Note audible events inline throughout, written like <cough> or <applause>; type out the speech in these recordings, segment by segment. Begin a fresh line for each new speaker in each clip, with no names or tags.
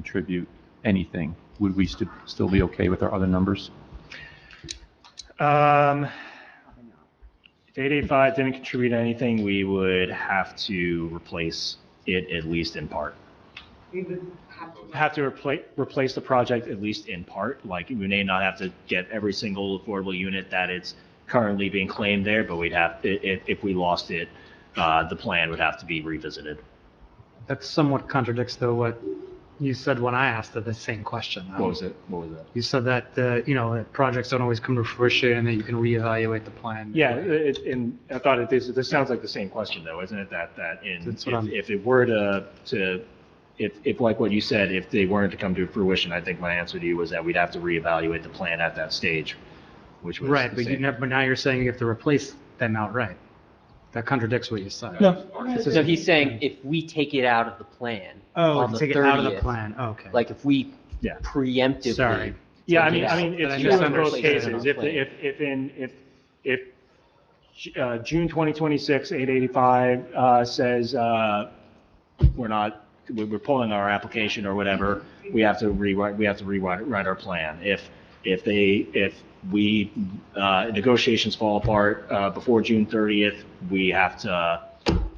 contribute anything, would we st- still be okay with our other numbers?
Um, if eight eight five didn't contribute anything, we would have to replace it at least in part.
We would have to.
Have to replace, replace the project at least in part, like we may not have to get every single affordable unit that it's currently being claimed there, but we'd have, i- if, if we lost it, uh, the plan would have to be revisited.
That somewhat contradicts though what you said when I asked the- the same question. though.
it? What was it?
You said that, uh, you know, that projects don't always come to fruition and that you can reevaluate the plan.
Yeah, it, and I thought it, this, this sounds like the same question though, isn't it, that, that in,
That's what I'm-
if, if it were to, to, if, if like what you said, if they weren't to come to fruition, I think my answer to you was that we'd have to reevaluate the plan at that stage, which was.
Right,
the
but you
same.
never, but now you're saying you have to replace them outright. That contradicts what you said.
So he's saying if we take it out of the plan
Oh,
on the
take it out of the
30th,
plan, Oh, okay.
like if we
Yeah.
preemptively.
Sorry.
Yeah, I mean,
Yeah.
I mean,
But I
it's true in both
misunderstood.
cases. If, if, if in, if, if, uh, June 2026, 885, uh, says, uh, we're not, we- we're pulling our application or whatever, we have to rewrite, we have to rewrite, write our plan. If, if they, if we, uh, negotiations fall apart, uh, before June 30th, we have to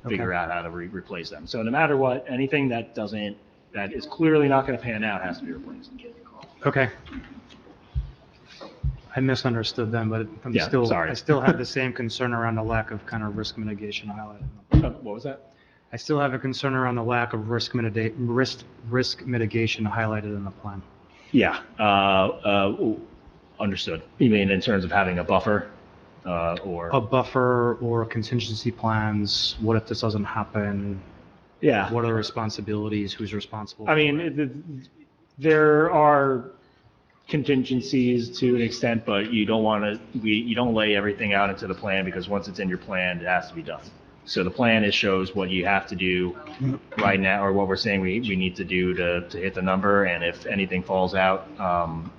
figure out how to re- replace them. So no matter what, anything that doesn't, that is clearly not going to pan out has to be replaced.
Okay. I misunderstood then, but I'm
Yeah,
still,
sorry.
I
<laughs>
still have the same concern around the lack of kind of risk mitigation highlighted. in the
Uh, What was that?
I still have a concern around the lack of risk mitigate, risk, risk mitigation highlighted in the plan.
Yeah, uh, uh, ooh, understood. You mean in terms of having a buffer, uh,
A
or,
buffer or contingency plans, what if this doesn't happen?
yeah.
What are the responsibilities, who's responsible?
I mean, it- it- there are contingencies to an extent, but you don't want to, we, you don't lay everything out into the plan because once it's in your plan, it has to be done. So the plan is shows what you have to do right now, or what we're saying we, we need to do to, to hit the number, and if anything falls out, um,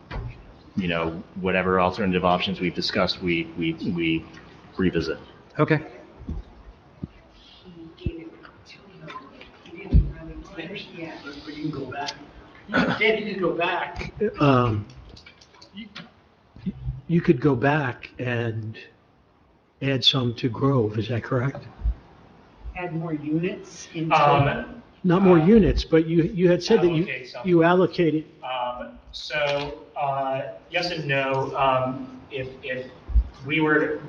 you know, whatever alternative options we've discussed, we, we, we revisit.
Okay,
You can go back. Can't you just go back?
um, you- you could go back and add some to Grove, is that correct?
Add more units into.
Um,
Not more
Uh,
units, but you, you had said that you,
allocate some.
you allocated,
Um, so, uh, yes and no, um, if, if we were,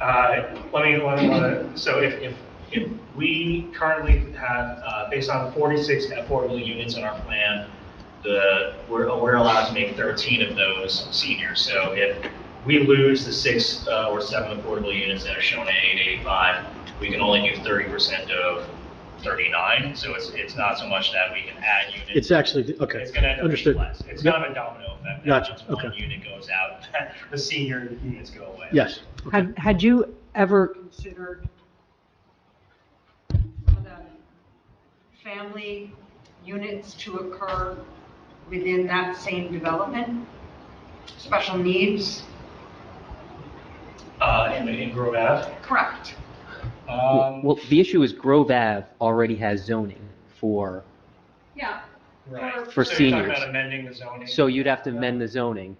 uh, let me, let me- let me, so if, if, if we currently have, uh, based on forty-six affordable units in our plan, the, we're, we're allowed to make thirteen of those seniors, so if we lose the six, uh, or seven affordable units that are shown at eight eighty-five, we can only do thirty percent of thirty-nine, so it's, it's not so much that we can add units.
it's actually, okay,
It's gonna end up
understood.
being less. It's kind of a domino effect. that
Gotcha,
once One
okay.
unit goes out, <laughs> the senior units go away.
Yes. okay.
Had, had you ever,
Considered the family units to occur within that same development? Special needs?
Uh, in, in Grove Ave.
Correct.
Um,
Well, the issue is Grove Ave already has zoning for,
Yeah.
right.
for
So you're talking
seniors.
about amending the zoning.
so you'd have to amend the zoning.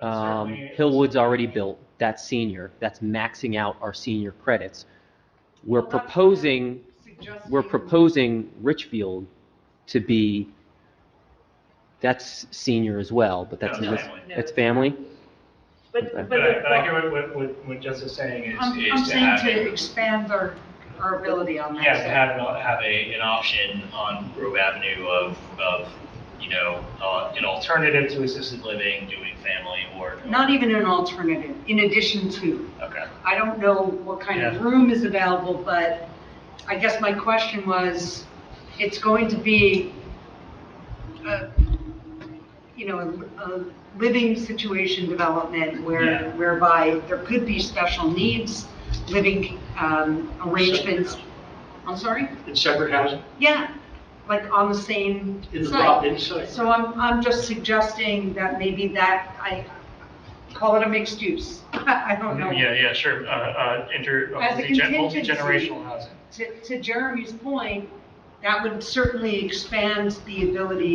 That's
Um,
certainly-
Hillwood's already built, that's senior, that's maxing out our senior credits. We're
Well, that's-
proposing,
Suggesting.
we're proposing Richfield to be, that's senior as well, but that's,
No,
No,
it's
that's-
family.
no.
that's family?
But, but.
But I,
the-
but I hear what- what, what, what Jess is saying is,
I'm, I'm
is to
saying
have.
to expand our, our ability on that.
Yeah, to have, an- have a, an option on Grove Avenue of, of, you know, uh, an alternative to assisted living, doing family or.
Not even an alternative, in addition to.
Okay.
I don't know what kind of
Yeah.
room is available, but I guess my question was, it's going to be, a, you know, a, a living situation development
Yeah.
where, whereby there could be special needs, living, um, arrangements. I'm sorry?
In separate housing,
Yeah, like on the same
in the
site.
block, inside.
So I'm, I'm just suggesting that maybe that, I call it a mixed use. <laughs> I don't know.
Yeah, yeah, sure, uh, uh, inter,
As a
multi-gen-
contingency.
multi-generational housing.
To, to Jeremy's point, that would certainly expand the ability